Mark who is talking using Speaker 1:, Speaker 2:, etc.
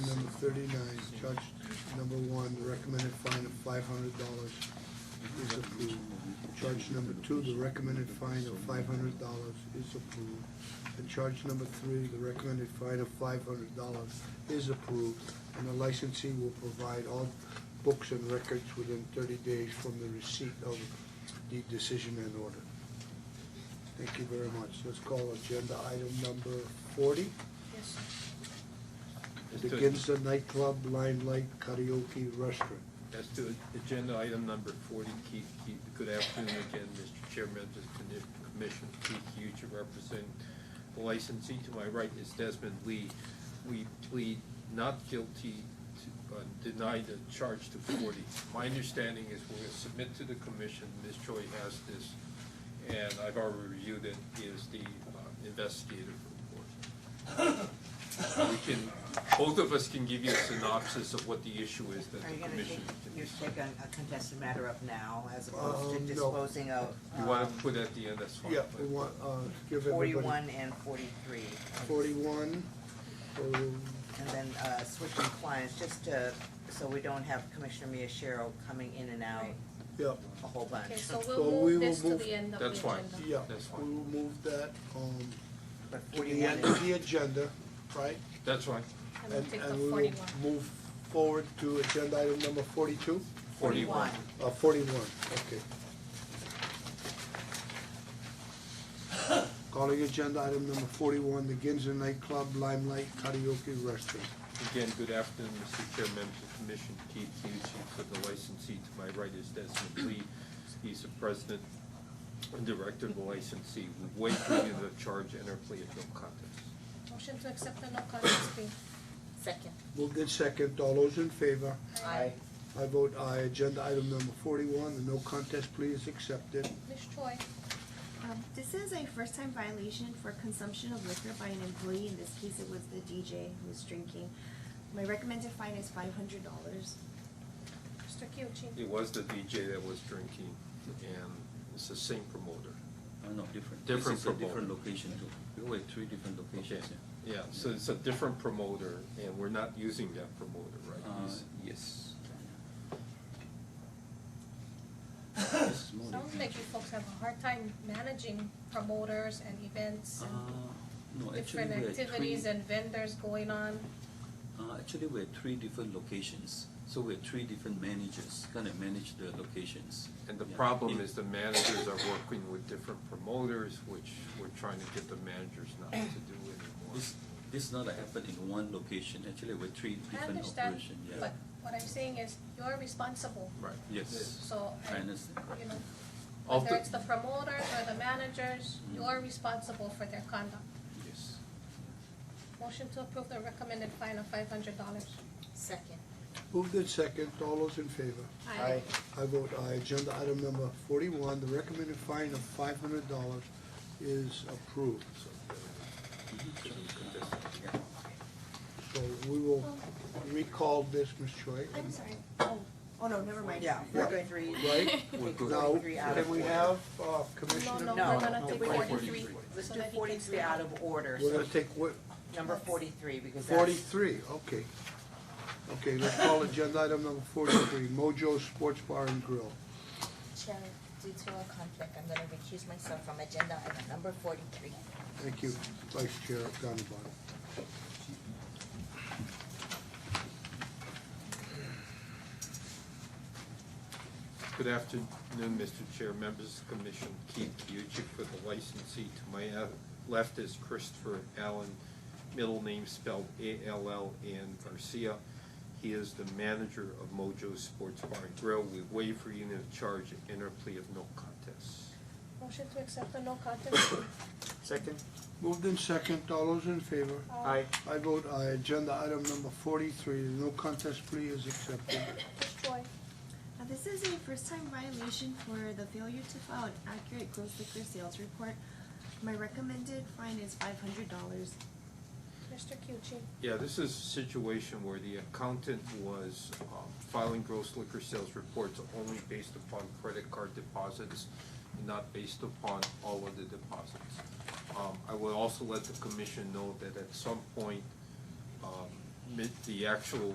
Speaker 1: thirty-nine, Judge number one, the recommended fine of five hundred dollars is approved. Judge number two, the recommended fine of five hundred dollars is approved. And charge number three, the recommended fine of five hundred dollars is approved. And the licensee will provide all books and records within thirty days from the receipt of the decision and order. Thank you very much. Let's call agenda item number forty.
Speaker 2: Yes.
Speaker 3: As
Speaker 1: The
Speaker 3: to-
Speaker 1: Ginza nightclub, Limelight Karaoke Restaurant.
Speaker 3: As to agenda item number forty, Keith, Keith, good afternoon again, Mr. Chair, members of the commission, Keith Hughes, representing the licensee. To my right is Desmond Lee. We plead not guilty to, uh, deny the charge to forty. My understanding is we're gonna submit to the commission, Ms. Choi has this, and I've already reviewed it, is the uh, investigative report. We can, both of us can give you a synopsis of what the issue is that
Speaker 4: Are
Speaker 3: the
Speaker 4: you gonna take,
Speaker 3: commission. Uh,
Speaker 4: you're taking a contested matter up now as
Speaker 1: Um,
Speaker 4: opposed to
Speaker 1: no.
Speaker 4: disposing of
Speaker 3: You wanna
Speaker 4: um,
Speaker 3: put at the end, that's fine.
Speaker 1: Yeah,
Speaker 3: but-
Speaker 1: we want, uh, give everybody.
Speaker 4: forty-one and forty-three?
Speaker 1: Forty-one, um,
Speaker 4: And then uh, switching clients, just to, so we don't have Commissioner Miyashiro coming in and out
Speaker 2: Right.
Speaker 1: yeah,
Speaker 4: a whole
Speaker 2: Okay,
Speaker 4: bunch.
Speaker 2: so
Speaker 1: So
Speaker 2: we'll
Speaker 1: we will
Speaker 2: move this to
Speaker 1: move-
Speaker 2: the end of the
Speaker 3: That's
Speaker 2: agenda.
Speaker 3: fine.
Speaker 1: yeah,
Speaker 3: That's fine.
Speaker 1: we will move that, um,
Speaker 4: But
Speaker 1: to the
Speaker 4: forty-one
Speaker 1: end of
Speaker 4: is,
Speaker 1: the agenda, right?
Speaker 3: That's fine.
Speaker 2: And we'll take the
Speaker 1: And we
Speaker 2: forty-one.
Speaker 1: will move forward to agenda item number forty-two,
Speaker 3: Forty-one.
Speaker 4: 41.
Speaker 1: uh, forty-one, okay. Calling agenda item number forty-one, the Ginza nightclub, Limelight Karaoke Restaurant.
Speaker 3: Again, good afternoon, Mr. Chair, members of the commission, Keith Hughes, for the licensee. To my right is Desmond Lee. He's the president and director of the licensee. We waive for you the charge and our plea of no contest.
Speaker 2: Motion to accept the no contest plea. Second.
Speaker 1: Moved in second, all those in favor?
Speaker 4: Aye.
Speaker 1: I vote aye. Agenda item number forty-one, the no contest plea is accepted.
Speaker 2: Ms. Choi,
Speaker 5: Um, This is a first-time violation for consumption of liquor by an employee. In this case, it was the DJ who was drinking. My recommended fine is five hundred dollars.
Speaker 2: Mr. Kyuchi.
Speaker 3: It was the DJ that was drinking, and it's the same promoter.
Speaker 6: Uh, no, different.
Speaker 3: Different
Speaker 6: This is a
Speaker 3: proposal.
Speaker 6: different location too. We were three different
Speaker 3: Okay,
Speaker 6: locations. yeah.
Speaker 3: yeah, so it's a different promoter, and we're not using that promoter, right?
Speaker 6: Uh,
Speaker 3: He's-
Speaker 6: yes. This is more
Speaker 2: Sounds
Speaker 6: than-
Speaker 2: like you folks have a hard time managing promoters and events
Speaker 6: Uh,
Speaker 2: and
Speaker 6: no, actually
Speaker 2: different
Speaker 6: we had
Speaker 2: activities
Speaker 6: three,
Speaker 2: and vendors going on.
Speaker 6: uh, actually we had three different locations. So we had three different managers, kind of manage the locations.
Speaker 3: And the
Speaker 6: Yeah.
Speaker 3: problem
Speaker 6: Yeah.
Speaker 3: is the managers are working with different promoters, which we're trying to get the managers not to do anymore.
Speaker 6: This, this not happen in one location, actually we're three
Speaker 2: I
Speaker 6: different
Speaker 2: understand,
Speaker 6: operation, yeah.
Speaker 2: but what I'm saying is you're responsible,
Speaker 3: Right.
Speaker 6: Yes,
Speaker 2: so,
Speaker 6: I
Speaker 2: and,
Speaker 6: understand.
Speaker 2: you know, whether
Speaker 3: Ulti-
Speaker 2: it's the promoters or the managers,
Speaker 6: Mm.
Speaker 2: you're responsible for their conduct.
Speaker 6: Yes.
Speaker 2: Motion to approve the recommended fine of five hundred dollars. Second.
Speaker 1: Moved in second, all those in favor?
Speaker 2: Aye.
Speaker 1: I vote aye. Agenda item number forty-one, the recommended fine of five hundred dollars is approved.
Speaker 6: Mm-hmm.
Speaker 1: So we will recall this, Ms. Choi.
Speaker 5: I'm sorry. Oh, oh no, never mind.
Speaker 4: yeah,
Speaker 1: Yeah.
Speaker 4: forty-three.
Speaker 1: Right?
Speaker 3: We're good.
Speaker 1: Now,
Speaker 4: Forty-three out of
Speaker 1: can we
Speaker 4: order.
Speaker 1: have uh, Commissioner?
Speaker 2: No, no,
Speaker 4: No.
Speaker 2: we're gonna
Speaker 1: No,
Speaker 2: take
Speaker 1: we're
Speaker 3: gonna-
Speaker 2: forty-three.
Speaker 4: Let's
Speaker 2: so
Speaker 4: do
Speaker 2: that he can
Speaker 4: forty-three
Speaker 2: speak.
Speaker 4: out of order,
Speaker 1: We're
Speaker 4: so
Speaker 1: gonna take what,
Speaker 4: number forty-three because that's.
Speaker 1: forty-three, okay. Okay, let's call agenda item number forty-three, Mojo Sports Bar and Grill.
Speaker 7: Chair, due to a conflict, I'm gonna recuse myself from agenda item number forty-three.
Speaker 1: Thank you, Vice Chair Ganabon.
Speaker 3: Good afternoon, Mr. Chair, members of the commission, Keith Kyuchi for the licensee. To my uh, left is Christopher Allen, middle name spelled A-L-L-A-N Garcia. He is the manager of Mojo Sports Bar and Grill. We waive for unit of charge and our plea of no contest.
Speaker 2: Motion to accept the no contest plea.
Speaker 8: Second?
Speaker 1: Moved in second, all those in favor?
Speaker 8: Aye.
Speaker 1: I vote aye. Agenda item number forty-three, no contest plea is accepted.
Speaker 2: Ms. Choi,
Speaker 5: Now, Uh, this is a first-time violation for the failure to file an accurate gross liquor sales report. My recommended fine is five hundred dollars.
Speaker 2: Mr. Kyuchi,
Speaker 3: Yeah, this is a situation where the accountant was um, filing gross liquor sales reports only based upon credit card deposits, not based upon all of the deposits. Um, I would also let the commission know that at some point, um, mid- the actual